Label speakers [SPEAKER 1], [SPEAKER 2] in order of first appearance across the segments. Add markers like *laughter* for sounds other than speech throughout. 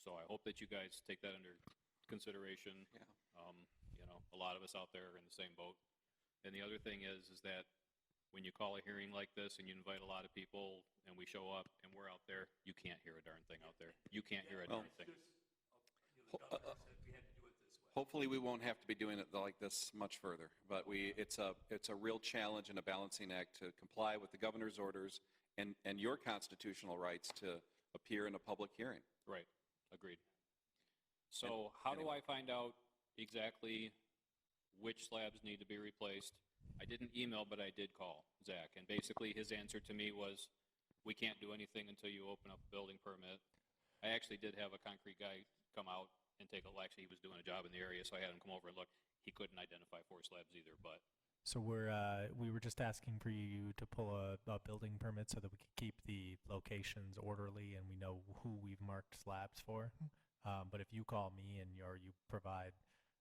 [SPEAKER 1] So I hope that you guys take that under consideration.
[SPEAKER 2] Yeah.
[SPEAKER 1] Um, you know, a lot of us out there are in the same boat. And the other thing is, is that when you call a hearing like this and you invite a lot of people and we show up and we're out there, you can't hear a darn thing out there. You can't hear a
[SPEAKER 2] Well-
[SPEAKER 1] darn thing.
[SPEAKER 2] Ho- uh, uh, Hopefully, we won't have to be doing it like this much further, but we, it's a, it's a real challenge and a balancing act to comply with the governor's orders and, and your constitutional rights to appear in a public hearing.
[SPEAKER 1] Right, agreed. So how do I find out exactly which slabs need to be replaced? I didn't email, but I did call Zach, and basically his answer to me was, we can't do anything until you open up a building permit. I actually did have a concrete guy come out and take a, well, actually, he was doing a job in the area, so I had him come over and look. He couldn't identify four slabs either, but
[SPEAKER 3] So we're uh, we were just asking for you to pull a, a building permit so that we could keep the locations orderly and we know who we've marked slabs for. Um, but if you call me and you or you provide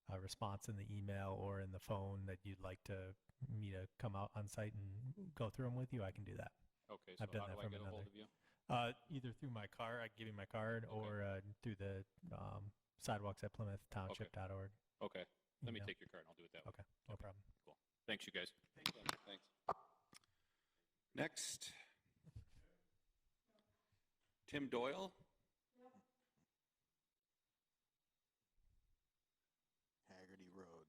[SPEAKER 3] a response in the email or in the phone that you'd like to me to come out on site and go through them with you, I can do that.
[SPEAKER 1] okay, so
[SPEAKER 3] I've done
[SPEAKER 1] how do
[SPEAKER 3] that
[SPEAKER 1] I
[SPEAKER 3] from
[SPEAKER 1] get a hold of
[SPEAKER 3] another.
[SPEAKER 1] you?
[SPEAKER 3] Uh, either through my car, I can give you my card,
[SPEAKER 1] Okay.
[SPEAKER 3] or uh, through the um, sidewalks at Plymouth Township.org.
[SPEAKER 1] Okay, let me
[SPEAKER 3] email.
[SPEAKER 1] take your card, and I'll do it that way.
[SPEAKER 3] Okay, no
[SPEAKER 1] okay.
[SPEAKER 3] problem.
[SPEAKER 1] Thanks, you guys.
[SPEAKER 2] Thanks. Next. Tim Doyle?
[SPEAKER 4] Haggerty Road.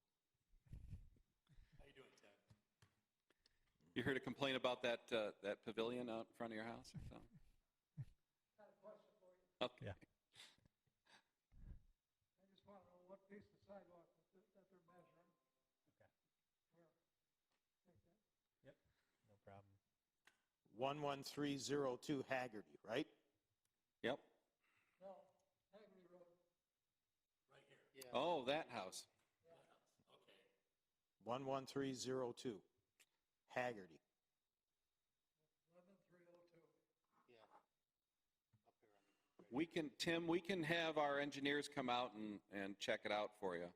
[SPEAKER 2] You heard a complaint about that, uh, that pavilion out in front of your house or something? Okay.
[SPEAKER 3] Yeah.
[SPEAKER 5] I just want to know what piece of sidewalk that they're- that they're measuring.
[SPEAKER 3] No problem.
[SPEAKER 4] 11302 Haggerty, right?
[SPEAKER 2] Yep.
[SPEAKER 5] No, Hagerty Road,
[SPEAKER 2] Oh, that house.
[SPEAKER 4] 11302 Haggerty.
[SPEAKER 5] eleven three oh two.
[SPEAKER 2] We can, Tim, we can have our engineers come out and, and check it out for you.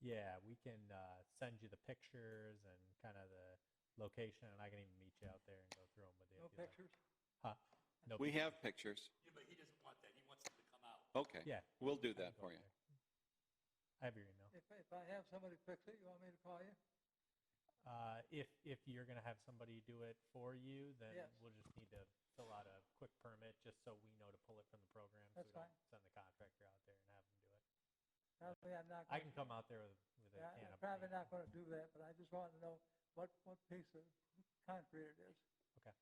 [SPEAKER 3] Yeah, we can uh, send you the pictures and kind of the location, and I can even meet you out there and go through them with you.
[SPEAKER 5] No
[SPEAKER 3] if you like.
[SPEAKER 5] pictures?
[SPEAKER 3] Huh? No.
[SPEAKER 2] We
[SPEAKER 3] pictures.
[SPEAKER 2] have pictures. Yeah, but he doesn't want that. He wants them to come out. Okay.
[SPEAKER 3] Yeah.
[SPEAKER 2] We'll do
[SPEAKER 3] I can
[SPEAKER 2] that
[SPEAKER 3] go
[SPEAKER 2] for
[SPEAKER 3] up
[SPEAKER 2] you.
[SPEAKER 3] there. I have your email.
[SPEAKER 5] If, if I have somebody fix it, you want me to call you?
[SPEAKER 3] Uh, if if you're gonna have somebody do it for you, then
[SPEAKER 5] Yes.
[SPEAKER 3] we'll just need to fill out a quick permit just so we know to pull it from the program.
[SPEAKER 5] That's
[SPEAKER 3] so we
[SPEAKER 5] fine.
[SPEAKER 3] don't send the contractor out there and have them do it.
[SPEAKER 5] Not only I'm not.
[SPEAKER 3] I can
[SPEAKER 5] gonna-
[SPEAKER 3] come out there with, with a
[SPEAKER 5] yeah,
[SPEAKER 3] can
[SPEAKER 5] I'm
[SPEAKER 3] of
[SPEAKER 5] probably
[SPEAKER 3] paint.
[SPEAKER 5] not going to do that, but I just want to know what, what piece of concrete it is,
[SPEAKER 3] Yep,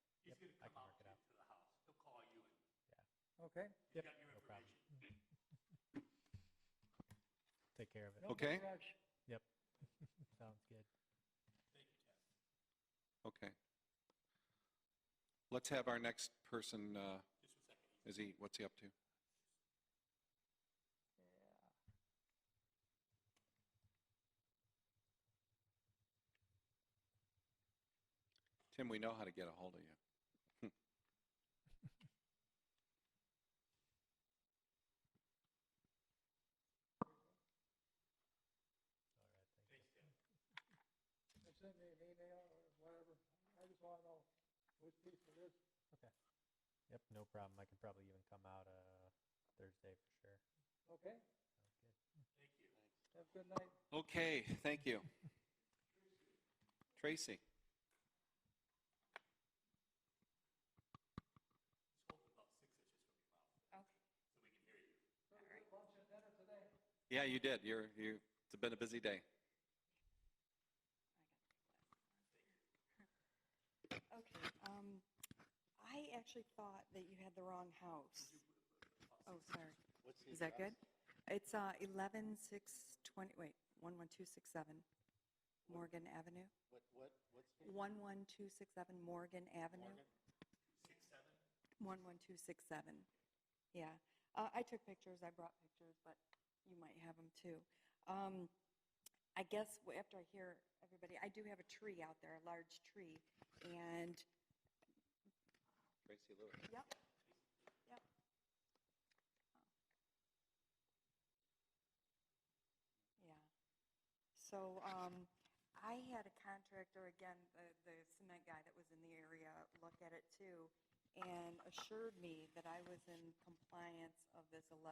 [SPEAKER 3] I can work it out.
[SPEAKER 5] okay?
[SPEAKER 3] Yep, no problem. Take care of it.
[SPEAKER 5] No- no
[SPEAKER 2] Okay.
[SPEAKER 5] rush.
[SPEAKER 3] Sounds good.
[SPEAKER 2] Okay. Let's have our next person, uh, is he, what's he up to? Tim, we know how to get a hold of you.
[SPEAKER 5] Or Send me an email or whatever, I just want to know which piece it is.
[SPEAKER 3] Yep, no problem. I can probably even come out uh, Thursday for sure.
[SPEAKER 5] okay?
[SPEAKER 3] Sounds good.
[SPEAKER 5] Have a good night.
[SPEAKER 2] Okay, thank *laughs* you. Tracy? Yeah, you did. You're, you, it's been a busy day.
[SPEAKER 6] Okay, um, I actually thought that you had the wrong house. Oh, sorry. Is that good? It's, uh, eleven six twenty, wait, one one two six seven Morgan Avenue.
[SPEAKER 4] What, what, what's?
[SPEAKER 6] One one two six seven Morgan Avenue. One one two six seven. Yeah, uh, I took pictures, I brought pictures, but you might have them too. Um, I guess w- after I hear everybody, I do have a tree out there, a large tree, and
[SPEAKER 2] Tracy Lewis.
[SPEAKER 6] Yep. Yep. Oh. Yeah. So, um, I had a contractor, again, the, the cement guy that was in the area, look at it too, and assured me that I was in compliance of this eleven.